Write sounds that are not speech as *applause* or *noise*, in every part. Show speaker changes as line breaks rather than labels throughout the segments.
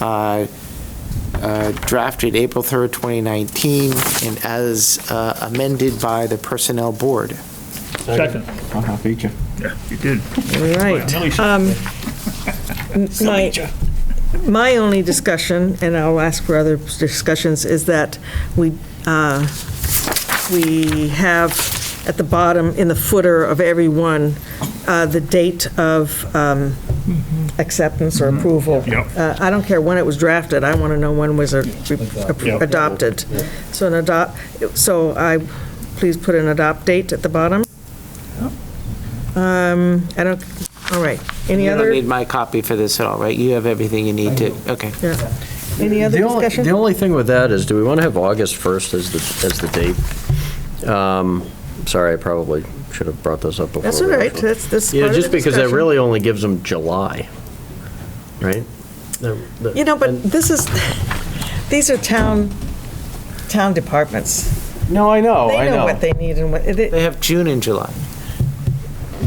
uh, uh, drafted April 3rd, 2019, and as uh, amended by the Personnel Board.
Second.
I'll beat you.
Yeah, you did.
All right.
Nearly said *laughs*
Um, My,
nature.
my only discussion, and I'll ask for other discussions, is that we, uh, we have at the bottom, in the footer of every one, uh, the date of um, acceptance or approval.
Mm-hmm. Yep.
Uh, I don't care when it was drafted, I want to know when was it re-
Yep.
adopted. So an adopt, so I, please put an adopt date at the bottom. Um, I don't, all right. Any
You
other?
don't need my copy for this at all, right? You have everything you need to, okay.
Yeah. Any other
The only, the
discussion?
only thing with that is, do we want to have August 1st as the, as the date? Um, Sorry, I probably should have brought this up before.
That's all
we
right,
actually-
that's, that's
Yeah,
part of the
just because that
discussion.
really only gives them July, right?
You know, but this is, these are town, town departments.
No, I
Oh,
know, I
They know
know.
what they need and what, they
They have June and July.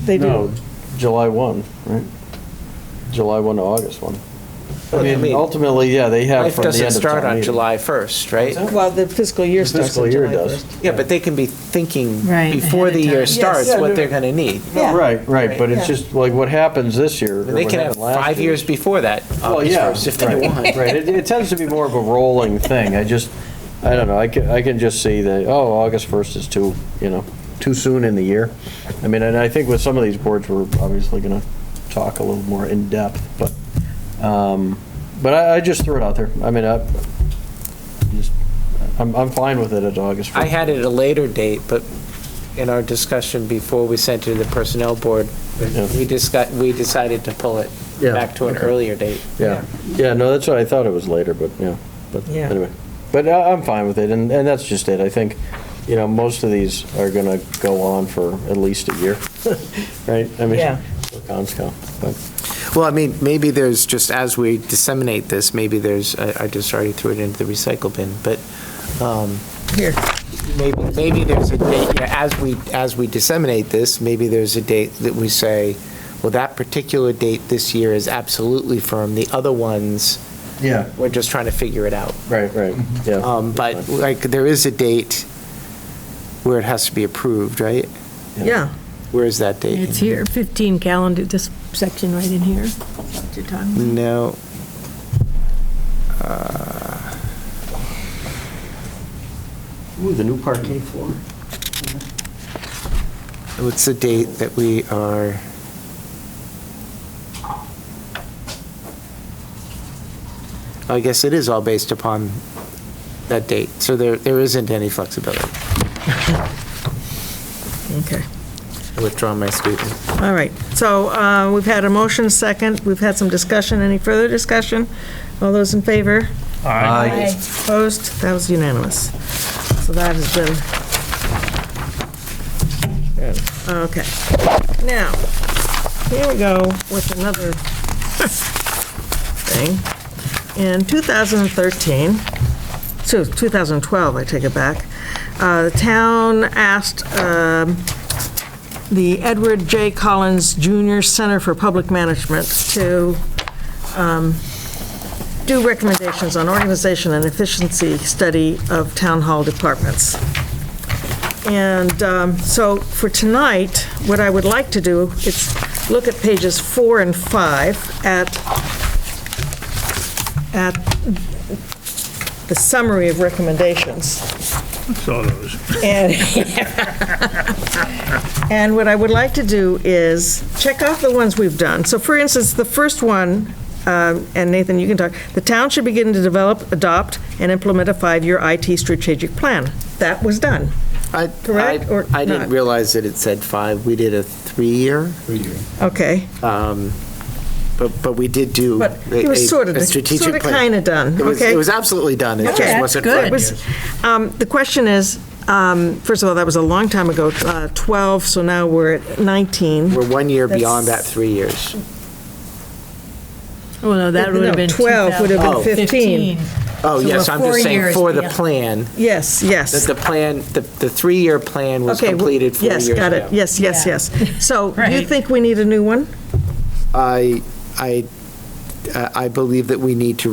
they
No,
do.
July 1, right? July 1 to August 1.
Well, I
I mean,
mean,
ultimately, yeah, they have
Life
from the end of
doesn't start
town
on
meeting.
July 1st, right?
that?
Well, the fiscal year
The
starts
fiscal
in
year
July
does.
1st.
Yeah, but they can be thinking
Right,
before
ahead
the
of
year
time.
starts
Yes.
what they're going to need.
Yeah.
Right, right, but
Yeah.
it's just like what happens this year.
And They
what
can have
happened last
five
year.
years before that,
Well,
August
yeah,
1st, if they
right,
want.
Right, it, it tends to be more of a rolling thing. I just, I don't know, I can, I can just see that, oh, August 1st is too, you know, too soon in the year. I mean, and I think with some of these boards, we're obviously going to talk a little more in-depth, but, um, but I, I just threw it out there. I mean, I, just- I'm, I'm fine with it at August 1st.
I had it at a later date, but in our discussion before we sent it to the Personnel Board,
Yeah.
we discussed, we decided to pull it
Yeah,
back to an
okay.
earlier date.
Yeah, yeah, no, that's what I thought it was later, but, yeah, but
Yeah.
anyway. But I- I'm fine with it, and, and that's just it. I think, you know, most of these are going to go on for at least a year, *laughs* right? I mean,
Yeah.
for Conscom, but,
Well, I mean, maybe there's, just as we disseminate this, maybe there's, I I just already threw it into the recycle bin, but um,
Here,
maybe, maybe there's a date, yeah, as we, as we disseminate this, maybe there's a date that we say, well, that particular date this year is absolutely firm, the other ones,
yeah, Mm-hmm.
we're just trying to figure it out.
right, right, yeah.
Um, But like, there is a date where it has to be approved, right?
yeah.
Where is that date?
It's here, 15 calendar, this section right in here. What you're talking about.
No. uh,
Ooh, the new parquet floor.
What's the date that we are? I guess it is all based upon that date, so there, there isn't any flexibility.
Okay.
I Withdraw my statement.
All right. So uh, we've had a motion second, we've had some discussion. Any further discussion? All those in favor?
Aye.
Opposed? That was unanimous. So that has been. Okay. Now, here we go with another thing. In 2013, so 2012, I take it back, uh, the town asked um, the Edward J. Collins Jr. Center for Public Management to do recommendations on organization and efficiency study of town hall departments. And um, so for tonight, what I would like to do is look at pages four and five at, at the summary of recommendations.
Saw those.
And, *laughs* and what I would like to do is check off the ones we've done. So for instance, the first one, um, and Nathan, you can talk, the town should begin to develop, adopt, and implement a five-year IT strategic plan. That was done.
I-
Correct
I-
or
I didn't
not?
realize that it said five. We did a three-year,
Okay,
um, but, but we did do.
but it
a- a-
was sort of,
a strategic
sort of
plan.
kind of done,
It was,
okay?
it was absolutely done. It
Okay.
just wasn't.
It
five
was-
years.
um, The question is, um, first of all, that was a long time ago, uh, 12, so now we're at 19.
We're one year
That's-
beyond that three years.
Oh, no, that would
No,
have been
12 would have been 15.
2015.
Oh,
So
yes,
we're
I'm
four
just saying
years
for the
beyond.
plan,
Yes, yes.
that the plan, the, the three-year plan was
Okay, well,
completed four years ago.
Yes, got it, yes, yes,
Yeah.
yes. So you
Right.
think we need a new one?
I, I, I believe that we need to